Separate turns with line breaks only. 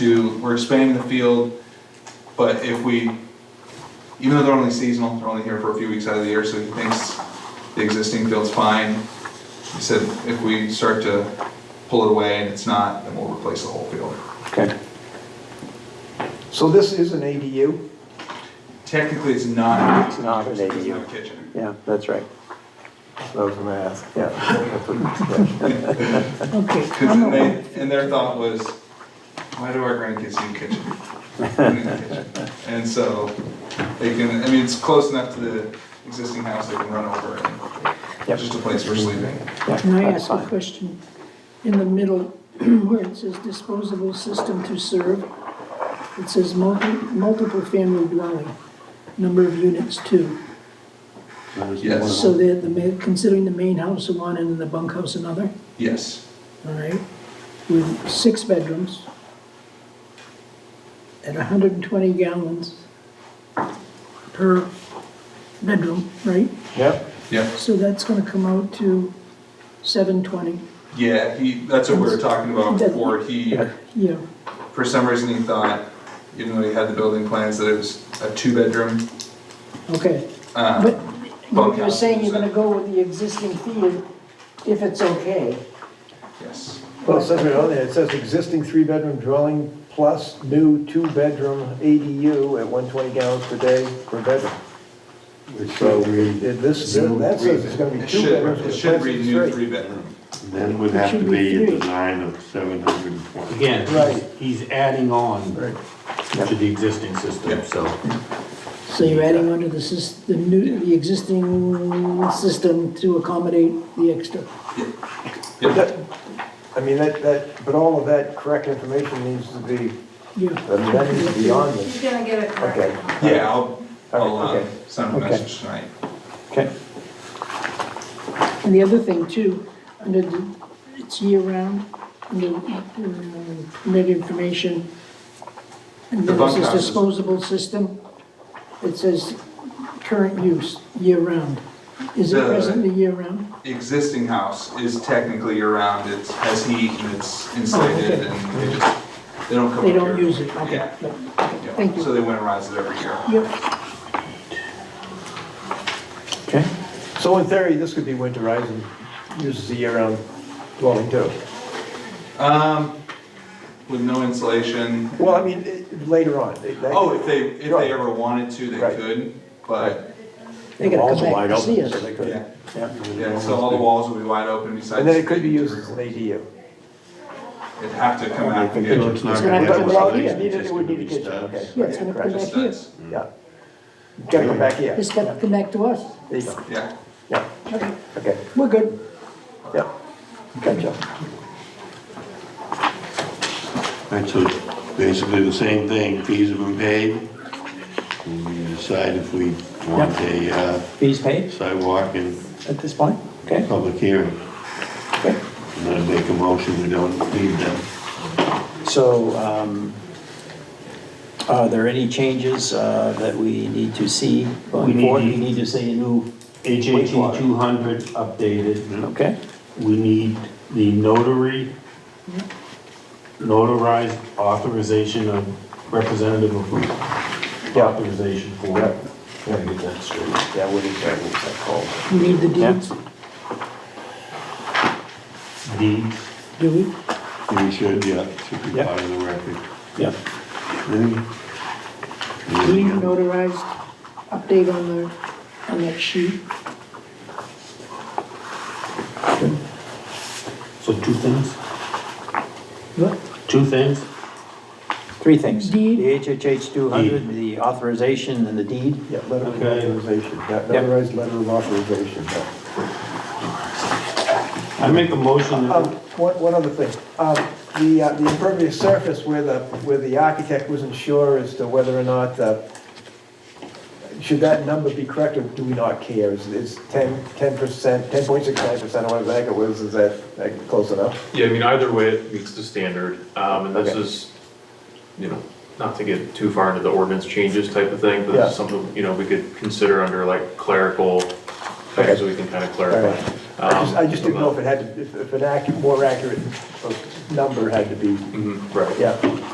to, we're expanding the field, but if we, even though they're only seasonal, they're only here for a few weeks out of the year, so he thinks the existing field's fine. He said if we start to pull it away and it's not, then we'll replace the whole field.
Okay. So this is an ADU?
Technically, it's not.
It's not an
It's not a
ADU.
kitchen.
Yeah, that's right. That was my ask, yeah.
Okay,
'Cause
I'm aware.
they- and their thought was, why do our grandkids need a kitchen? We need a kitchen. And so they can, I mean, it's close enough to the existing house, they can run over and
Yep.
just a place for sleeping.
Yeah,
Can I
that's
ask a
fine.
question? In the middle, where it says disposable system to serve, it says multi, multiple family dwelling, number of units two.
Yes.
So they're the, ma- considering the main house one and the bunkhouse another,
Yes.
all right? With six bedrooms at hundred and twenty gallons per bedroom, right?
Yep,
Yep.
So that's gonna come out to seven twenty,
Yeah, he, that's what we were talking about before, he,
yeah.
for some reason he thought, even though he had the building plans, that it was a two-bedroom,
Okay,
uh,
But you- you're saying you're gonna go with the existing field if it's okay.
yes,
well, it says right on there, it says existing three-bedroom dwelling plus new two-bedroom ADU at one twenty gallons per day per bedroom. So,
So we
it- this, that says it's gonna be
it
two
should,
bedrooms.
it should read new
three.
three-bedroom.
then would have to be a design of seven hundred and twenty.
Again,
Right.
he's he's adding on to the existing
Yeah.
system, so.
so you're adding on to the sys, the new, the existing system to accommodate the extra.
Yep,
I mean, that, that, but all of that correct information needs to be,
Yeah,
I mean, that needs to be on
He's
this.
gonna get it correct.
Okay.
yeah, I'll, I'll, uh,
Okay.
send him a
Okay.
message tonight.
Okay.
and the other thing too, under the, it's year-round, under, um, permit information, and
The
then it says
bunkhouse is-
disposable system, it says current use, year-round. Is it
The-
presently year-round?
Existing house is technically around, it has heat and
Oh,
it's insulated
okay.
and they just, they don't come up
They
here.
don't use it, okay,
Yeah,
but-
yeah.
thank you.
So they winterize it every year.
yeah.
Okay. So in theory, this could be winterized and used as a year-round dwelling too.
Um, with no insulation,
Well, I mean, it- later on. it- that-
Oh, if they, if
Right.
they ever wanted to, they
Right.
could, but,
They gotta
Walls
come
wide
back and
open,
see
so
us.
they could-
yeah,
yeah.
yeah, so all the walls would be wide open besides.
And then it could be
the
used as an
interior.
ADU.
It'd have to come out. and
So
get
it's not
It's
gonna
gonna
have
come
a
back
solution,
here. It
just
would
gonna
need
be
a kitchen,
studs.
okay.
Yeah, it's gonna come back
just
here.
studs.
Yeah. Gotta come back here.
It's got to come back to us.
There you go.
Yeah,
Yeah,
Okay,
okay,
we're good.
yeah. Gotcha.
Right, so basically the same thing, fees have been paid. And we decide if we want a uh,
Fees paid
sidewalk and
at this point? Okay,
public hearing.
okay.
And then make a motion, we don't need them.
So um, are there any changes uh, that we need to see
We
going
need-
forward? We need to see a new,
HHE
Wastewater.
two hundred updated,
okay?
we need the notary, notarized authorization of representative of
Yeah,
authorization for.
Yeah.
Gotta get that straight.
yeah, what is that, what's that called?
We need the deeds,
Deed,
do we?
We should, yeah, should be
Yeah.
part of the record.
Yeah.
Do we
Anything else?
notarized update on the, on that sheet?
so two things,
What?
two things,
Three things. The
Deed.
HHH 200, the authorization and the deed.
Yeah, letter of
Okay.
authorization, yeah, notarized letter of authorization, yeah.
I make a motion
Um,
that
One, one other thing, Um, the, uh, the impervious surface where the, where the architect wasn't sure as to whether or not, uh, should that number be correct or do we not care? Is, is 10, 10%, 10.69% or whatever the heck it was, is that, that close enough?
Yeah, I mean, either way, it meets the standard, um, and this
Okay.
is, you know, not to get too far into the ordinance changes type of thing, but
Yeah.
this is something, you know, we could consider under like clerical
Okay.
things, so we can kind of
All
clarify.
right. I just, I just
Um,
didn't know if it had to, if if an accurate, more accurate uh, number had to be,
Mhm, Right.
yeah,